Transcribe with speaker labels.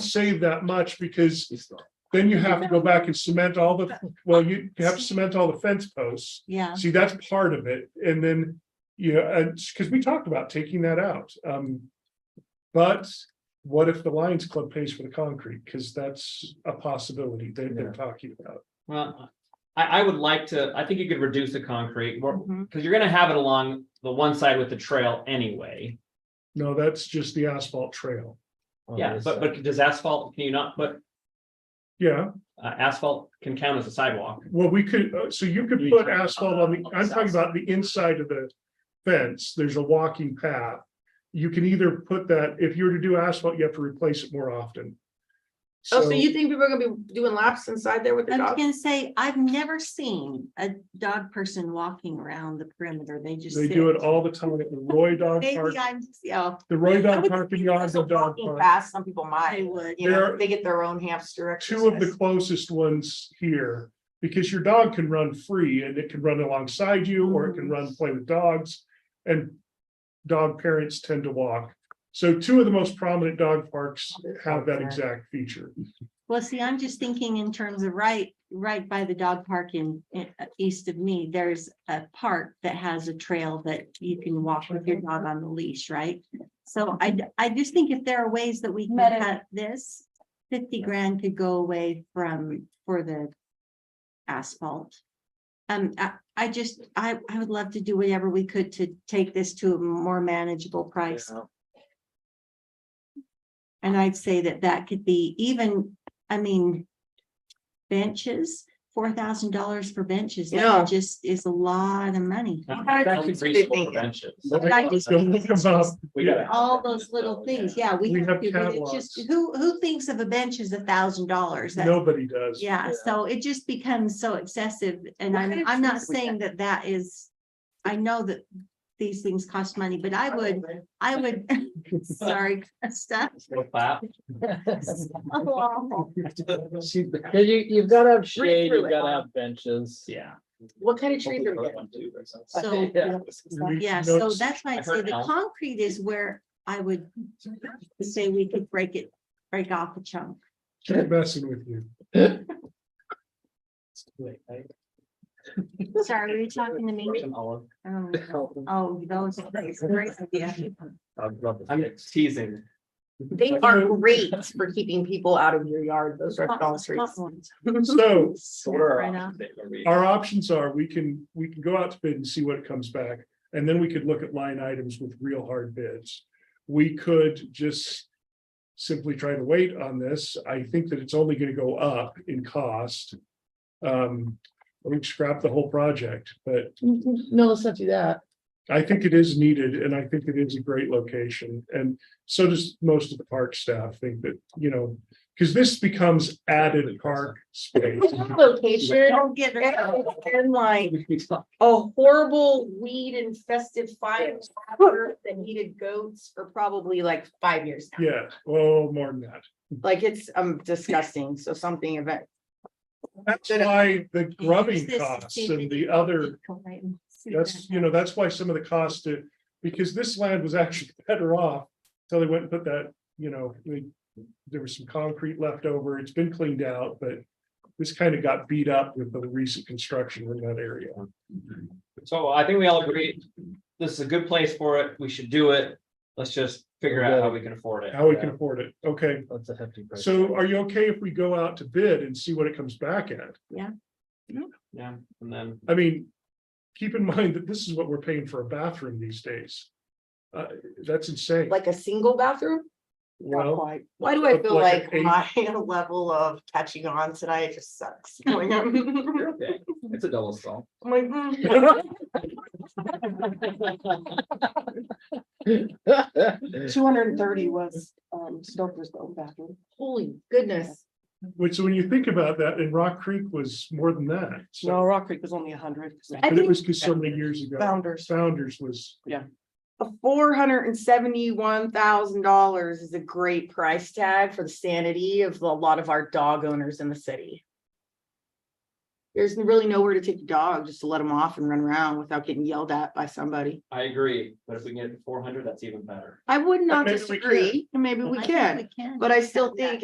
Speaker 1: save that much because then you have to go back and cement all the, well, you have to cement all the fence posts.
Speaker 2: Yeah,
Speaker 1: See, that's part of it. And then, you know, and because we talked about taking that out. Um. But what if the Lions Club pays for the concrete? Because that's a possibility they've been talking about.
Speaker 3: Well, I, I would like to, I think you could reduce the concrete,
Speaker 2: Mhm.
Speaker 3: because you're gonna have it along the one side with the trail anyway.
Speaker 1: No, that's just the asphalt trail.
Speaker 3: Yeah, but, but does asphalt, can you not put,
Speaker 1: Yeah,
Speaker 3: uh, asphalt can count as a sidewalk?
Speaker 1: well, we could, uh, so you could put asphalt on the, I'm talking about the inside of the fence. There's a walking path. You can either put that, if you were to do asphalt, you have to replace it more often.
Speaker 4: Oh, so you think people are gonna be doing laps inside there with
Speaker 2: I
Speaker 4: their
Speaker 2: was
Speaker 4: dog?
Speaker 2: gonna say, I've never seen a dog person walking around the perimeter. They just.
Speaker 1: They
Speaker 2: sit.
Speaker 1: do it all the time at the Roy Dog Park,
Speaker 2: Maybe I'm, yeah,
Speaker 1: the Roy
Speaker 4: I
Speaker 1: Dog
Speaker 4: would
Speaker 1: Park and
Speaker 4: think
Speaker 1: Yards
Speaker 4: that's a
Speaker 1: and Dog
Speaker 4: walking
Speaker 1: Park.
Speaker 4: Fast, some people
Speaker 2: I
Speaker 4: might,
Speaker 2: would.
Speaker 4: you know,
Speaker 1: There-
Speaker 4: they get their own hamster
Speaker 1: Two of the
Speaker 4: exercise.
Speaker 1: closest ones here, because your dog can run free and it can run alongside you or it can run play with dogs. And dog parents tend to walk. So two of the most prominent dog parks have that exact feature.
Speaker 2: Well, see, I'm just thinking in terms of right, right by the dog park in, in- uh, east of me, there's a park that has a trail that you can walk with your dog on the leash, right? So I, d- I just think if there are ways that we can
Speaker 5: Meta-
Speaker 2: cut this, fifty grand could go away from, for the asphalt. Um, I, I just, I, I would love to do whatever we could to take this to a more manageable price. And I'd say that that could be even, I mean, benches, four thousand dollars for benches,
Speaker 4: Yeah.
Speaker 2: that just is a lot of money.
Speaker 4: How
Speaker 3: That's
Speaker 4: did you
Speaker 3: reasonable
Speaker 4: think it?
Speaker 3: prevention.
Speaker 2: But I just-
Speaker 1: Don't look above.
Speaker 3: We gotta-
Speaker 2: All those little things, Oh, yeah, we
Speaker 1: We have
Speaker 2: have to, but it's just,
Speaker 1: catwalks.
Speaker 2: who, who thinks of a bench as a thousand dollars? That-
Speaker 1: Nobody does.
Speaker 2: Yeah, so it just becomes so excessive, and
Speaker 4: What kind
Speaker 2: I'm,
Speaker 4: of
Speaker 2: I'm not
Speaker 4: trees we
Speaker 2: saying that that is, I know that these things cost money, but I would, I would, sorry, stuff.
Speaker 3: We'll clap.
Speaker 6: Yeah, you, you've gotta have shade,
Speaker 4: through
Speaker 6: you've
Speaker 4: it,
Speaker 6: gotta
Speaker 4: Bob.
Speaker 6: have benches.
Speaker 3: Yeah.
Speaker 4: What kind of trees are we getting?
Speaker 2: So,
Speaker 6: Yeah.
Speaker 2: Yeah, so
Speaker 1: Notes.
Speaker 2: that's why
Speaker 3: I
Speaker 2: I'd say
Speaker 3: heard
Speaker 2: the
Speaker 3: elm.
Speaker 2: concrete is where I would say we could break it, break off a chunk.
Speaker 1: Keep messing with you.
Speaker 2: Sorry, were you talking to me? Oh, Oh, those. that's a great idea.
Speaker 3: I'm teasing.
Speaker 4: They are great for keeping people out of your yard, those are dog trees.
Speaker 2: Hot ones.
Speaker 1: So
Speaker 2: Right on.
Speaker 1: our options are, we can, we can go out to bid and see what comes back. And then we could look at line items with real hard bids. We could just simply try to wait on this. I think that it's only gonna go up in cost. Um, we can scrap the whole project, but
Speaker 6: No, let's not do that.
Speaker 1: I think it is needed and I think it is a great location. And so does most of the park staff think that, you know, because this becomes added park space.
Speaker 4: Location
Speaker 2: Don't get rid of it.
Speaker 4: and like a horrible weed infested fire after that needed goats for probably like five years. now.
Speaker 1: Yeah, well, more than that.
Speaker 4: Like it's um disgusting, so something about.
Speaker 1: That's why the
Speaker 2: Use
Speaker 1: grubbing
Speaker 2: this to
Speaker 1: costs
Speaker 2: see if
Speaker 1: and
Speaker 2: it
Speaker 1: the
Speaker 2: can
Speaker 1: other,
Speaker 2: go right and see
Speaker 1: that's,
Speaker 2: that.
Speaker 1: you know, that's why some of the cost to, because this land was actually better off. till they went and put that, you know, we, there was some concrete left over. It's been cleaned out, but this kind of got beat up with the recent construction in that area.
Speaker 3: So I think we all agree, this is a good place for it, we should do it, let's just figure out how we can afford it.
Speaker 1: How we can afford it. Okay,
Speaker 6: That's a hefty price.
Speaker 1: so are you okay if we go out to bid and see what it comes back at?
Speaker 3: Yeah, and then.
Speaker 1: I mean, keep in mind that this is what we're paying for a bathroom these days. Uh, that's insane.
Speaker 4: Like a single bathroom? Not
Speaker 1: Well,
Speaker 4: quite. Why do I
Speaker 1: Look
Speaker 4: feel
Speaker 1: like
Speaker 4: like
Speaker 1: an
Speaker 4: my level of catching on tonight It just sucks? I'm
Speaker 3: It's a double stall.
Speaker 4: like, mm.
Speaker 7: Two hundred and thirty was, um, Stoker's own bathroom.
Speaker 4: Holy goodness.
Speaker 1: which when you think about that, and Rock Creek was more than that. So,
Speaker 7: No, Rock Creek was only a hundred.
Speaker 1: but it was because so many years ago,
Speaker 7: Founders.
Speaker 1: Founders was,
Speaker 4: Four hundred and seventy-one thousand dollars is a great price tag for the sanity of a lot of our dog owners in the city. There's really nowhere to take your dog, just to let them off and run around without getting yelled at by somebody.
Speaker 3: I agree, but if we can get four hundred, that's even better.
Speaker 4: I would not
Speaker 1: Maybe we can.
Speaker 4: disagree, and maybe we
Speaker 2: I think
Speaker 4: can, but I still think